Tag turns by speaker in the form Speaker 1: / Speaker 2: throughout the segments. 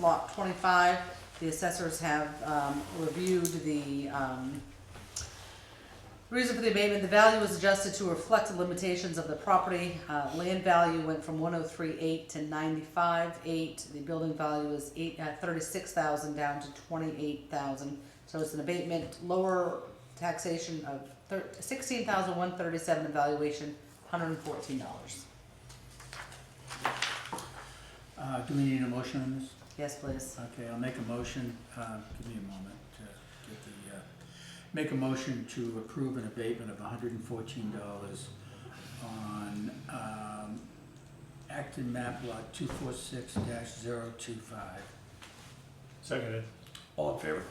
Speaker 1: lot twenty-five. The assessors have, um, reviewed the, um, reason for the abatement, the value was adjusted to reflect the limitations of the property. Uh, land value went from one oh three eight to ninety-five eight. The building value is eight, uh, thirty-six thousand down to twenty-eight thousand. So it's an abatement, lower taxation of thir- sixteen thousand one thirty-seven evaluation, hundred and fourteen dollars.
Speaker 2: Uh, do we need a motion on this?
Speaker 1: Yes, please.
Speaker 2: Okay, I'll make a motion, uh, give me a moment to get the, uh, make a motion to approve an abatement of hundred and fourteen dollars on, um, Acton map lot two four six dash zero two five.
Speaker 3: Seconded.
Speaker 4: All in favor?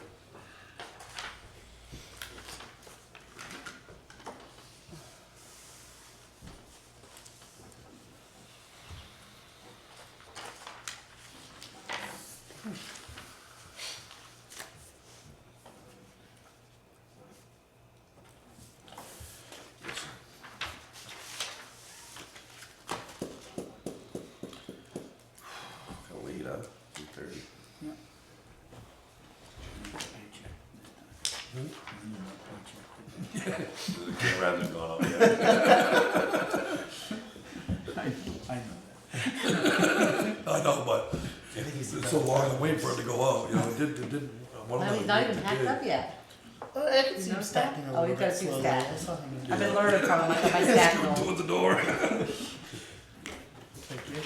Speaker 4: Gonna lead on two thirty. The camera hasn't gone off yet.
Speaker 2: I, I know that.
Speaker 4: I know, but it's so long to wait for it to go out, you know, it did, it did, one of
Speaker 1: No,
Speaker 4: them.
Speaker 1: he's not even packed up yet.
Speaker 5: Well, I can see
Speaker 1: No
Speaker 5: him stacking
Speaker 1: stack.
Speaker 5: a
Speaker 1: Oh,
Speaker 5: little
Speaker 1: you gotta
Speaker 5: bit
Speaker 1: see
Speaker 5: slowly.
Speaker 1: stack.
Speaker 5: That's not gonna do
Speaker 1: I've been
Speaker 5: it.
Speaker 1: learning from him, like my stack roll.
Speaker 4: Towards the door.
Speaker 2: Thank you.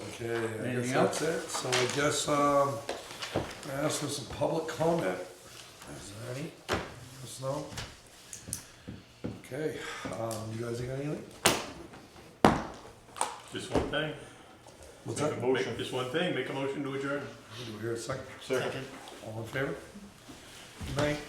Speaker 4: Okay, I
Speaker 2: Anything
Speaker 4: guess that's it, so I guess, um, I asked for some public comment. Is there any? Yes, no? Okay, um, you guys got anything?
Speaker 3: Just one thing.
Speaker 4: What's
Speaker 3: Make
Speaker 4: that?
Speaker 3: a motion, just one thing, make a motion to adjourn.
Speaker 4: Do we hear a second?
Speaker 3: Second.
Speaker 4: All in favor? Good night.